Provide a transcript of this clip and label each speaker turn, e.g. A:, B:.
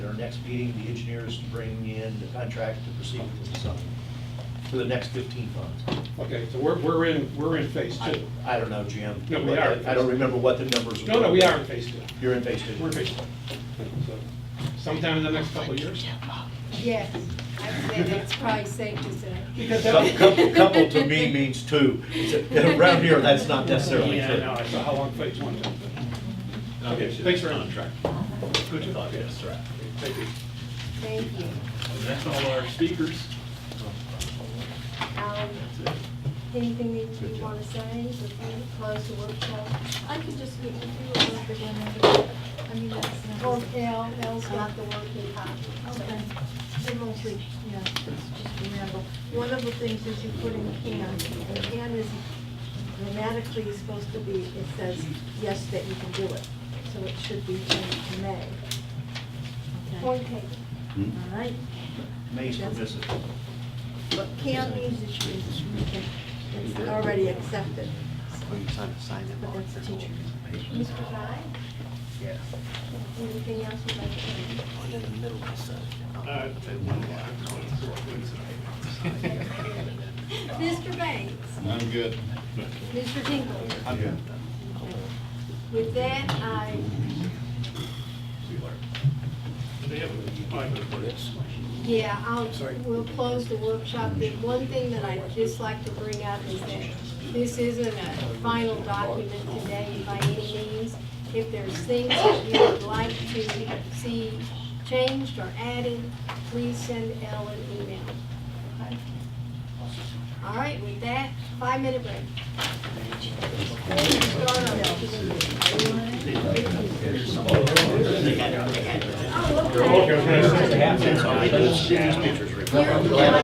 A: next meeting, the engineers to bring in the contract to proceed with the design for the next 15 months.
B: Okay, so we're, we're in, we're in phase
A: I-
B: two.
A: I don't know, Jim.
B: No, we are.
A: I don't remember what the numbers were.
B: No, no, we are in phase two.
A: You're in phase two.
B: We're in phase two. So Sometime in the next couple of years.
C: Yes, I'd say that's probably safe to say.
B: Because
A: Cou- cou-
B: that.
A: Couple to me means two. It's a- Around here, that's not necessarily
B: Yeah, I know, I
A: true.
B: saw how long phase one took. Okay, thanks for contract. Good to talk, yes, right. Thank you.
C: Thank you.
D: That's all our speakers.
C: Um, Anything that you want to say before we close the workshop?
E: I could just meet with you a little bit whenever, I mean, that's
C: Or
E: not.
C: L, L's not the working copy.
E: Okay. It won't be, yeah, it's just remember. One of the things is you put in can, and can is grammatically is supposed to be, it says, yes, that you can do it. So it should be changed to may.
C: Point
E: Okay,
C: taken.
E: all right?
A: May's permissive.
E: But can means it's, it's, it's already accepted,
F: Will you sign, sign it?
E: but that's a teacher.
C: Mr. Guy,
A: Yeah.
C: anything else you'd like to
F: One in the middle of the side.
B: Uh,
C: add? Mr. Banks? I'm good. Mr. Dinkle? I'm good. With that, I,
B: They have a five minute break.
C: yeah, I'll, we'll close the workshop. The one thing that I'd just like to bring up is that this isn't a final document today by any means. If there's things that you would like to see changed or added, please send Elle an email. Okay? All right, with that, five-minute break. Start on
A: Half cents on these pictures.